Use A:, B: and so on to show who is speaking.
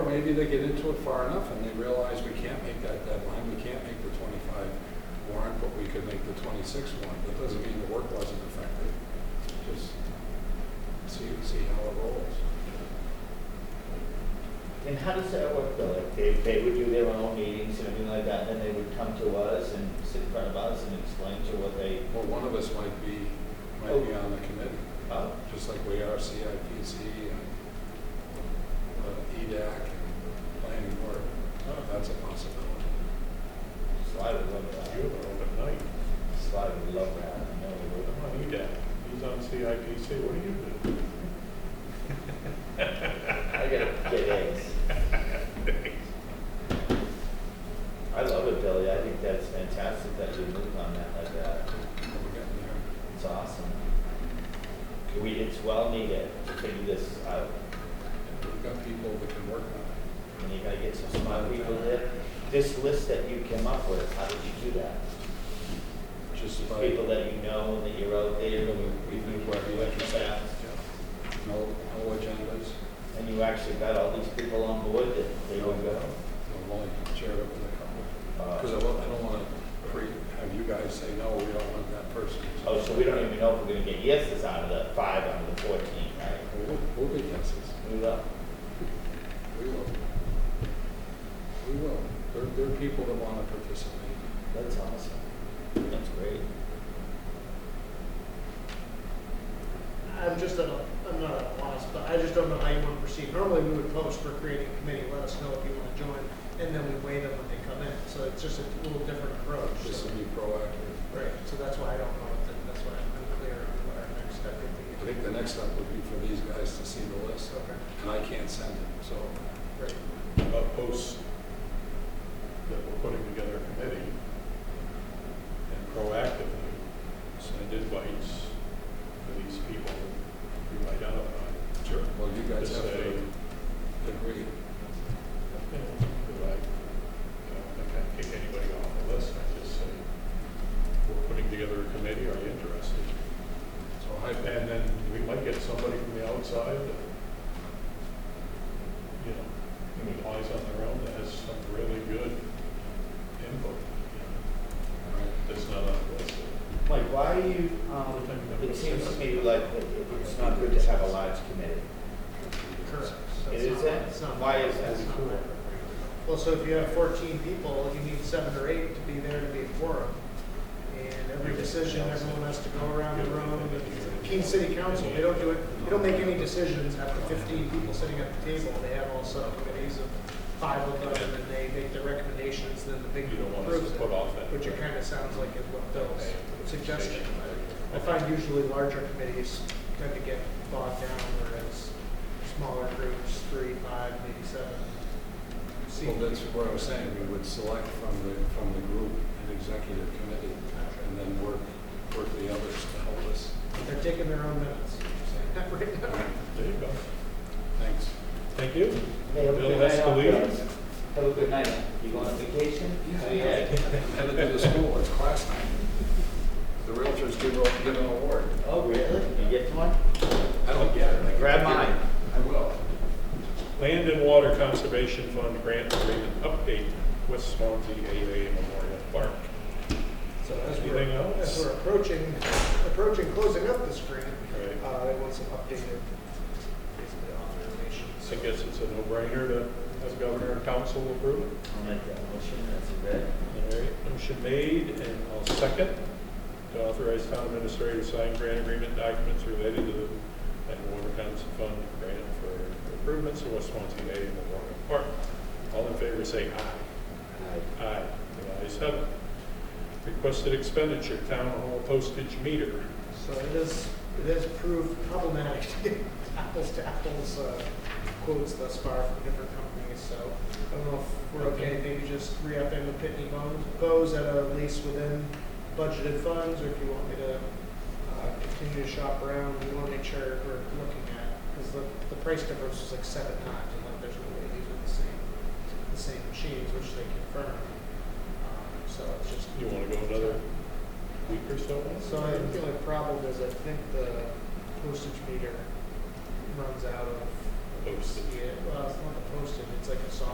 A: maybe they get into it far enough and they realize we can't make that deadline, we can't make the twenty-five warrant, but we could make the twenty-six warrant. That doesn't mean the work wasn't effective, just see, see how it rolls.
B: And how does that work though? Like they, they would do their own meetings and everything like that, then they would come to us and sit in front of us and explain to what they,
A: Well, one of us might be, might be on the committee,
B: oh,
A: just like we are CIPC and uh, EDAC and planning board. Oh, That's a possibility.
B: Sly would love that.
C: You were overnight.
B: Sly would love that, I know he
C: I'm
B: would.
C: on EDAC. He's on CIPC. What do you do?
B: I gotta get eggs. I love it, Billy, I think that's fantastic that you moved on that like that,
A: We're getting there.
B: it's awesome. We, it's well needed to figure this out,
A: And We've got people that can work on it.
B: and you gotta get some smart people there. This list that you came up with, how did you do that?
A: Just
B: Just
A: by,
B: people that you know and that you're out there and we, we work with and that.
A: yeah. no, no agendas,
B: And you actually got all these people on board that they would go.
A: I'm only chair over the couple.
B: uh,
A: Because I don't, I don't want to pre, have you guys say, no, we don't want that person.
B: Oh, so we don't even know if we're gonna get yeses out of the five out of the fourteen, right?
A: We'll, we'll be yeses.
B: We will.
A: We will. We will. There, there are people that want to participate.
B: That's awesome. That's great.
D: I'm just at a, I'm not at a loss, but I just don't know how you want to proceed. Normally, we would post for creating a committee, let us know if you want to join, and then we weigh them when they come in. So it's just a little different approach.
A: Just
D: So,
A: to be proactive.
D: right. So that's why I don't know. if that- That's why I'm unclear on what our next step would be.
A: I think the next step would be for these guys to see the list,
D: Okay.
A: and I can't send it, so.
D: Great.
C: About posts that we're putting together a committee and proactively send invites to these people you identify.
A: Sure. Well, you guys
C: Just
A: have
C: say-
A: to agree.
C: You know, Because I, you know, I can't kick anybody off the list. I just say, we're putting together a committee. Are you interested?
A: So I,
C: And then we might get somebody from the outside that, you know, who applies on their own that has some really good input, you know,
A: right,
C: that's not on the list.
B: Mike, why do you, um, it seems to me like it- it's not good to have a large committee.
D: Correct.
B: It
D: That's
B: is it?
D: not- that's not-
B: Why is that?
D: that's not right. Well, so if you have fourteen people, you need seven or eight to be there to be a quorum. And every decision, everyone has to go around the room. Keene City Council, they don't do it, they don't make any decisions after fifteen people sitting at the table. They have all subcommittees of five of them, and they make their recommendations, then the big
C: You
D: group
C: don't want us
D: approves
C: to
D: it.
C: put off that.
D: Which it kind of sounds like is what Bill's suggesting. I find usually larger committees tend to get bogged down, whereas smaller groups, three, five, maybe seven.
A: well, that's what I was saying, we would select from the, from the group an executive committee, and then work, work the others to help us.
D: They're taking their own minutes. Right now.
C: There you go.
A: Thanks.
C: Thank you.
B: Hey, have a
C: Bill
B: good night out there.
C: Escalito.
B: Have a good night. You going on vacation? Oh,
A: Headed to the school, it's class night. The realtors give, a- give an award.
B: Oh, really? You get one?
A: I don't get it. I
B: Grab
A: give it.
B: mine.
A: I will.
C: Land and Water Conservation Fund Grant Agreement Update, West Swansea AA Memorial Park.
D: So as we're,
C: Anything else?
D: as we're approaching, approaching closing up this grant,
C: Right.
D: uh, I want some updated, basically authorizations.
C: I guess it's a no-brainer to have governor and council approve it.
B: I'll make that motion, that's a red.
C: All right, motion made, and I'll second to authorize town administrator to sign grant agreement documents related to the Land Water Council Fund grant for improvements to West Swansea Bay and Memorial Park. All in favor, say aye. Aye. The ayes have it. Requested expenditure, town hall postage meter.
D: So it is, it has proved problematic to get apples to apples uh, quotes thus far from different companies, so I don't know if we're okay, maybe just re-upping the Pitney Bowes- Bowes at a lease within budgeted funds, or if you want me to uh, continue to shop around, we want to make sure we're looking at, because the, the price difference was like seven times, and like there's no way these are the same, the same machines, which they confirmed. Um, So it's just.
C: You want to go another week or so?
D: So I feel like problem is I think the postage meter runs out of
C: posted.
D: Yeah, well, it's not posted, it's like a soft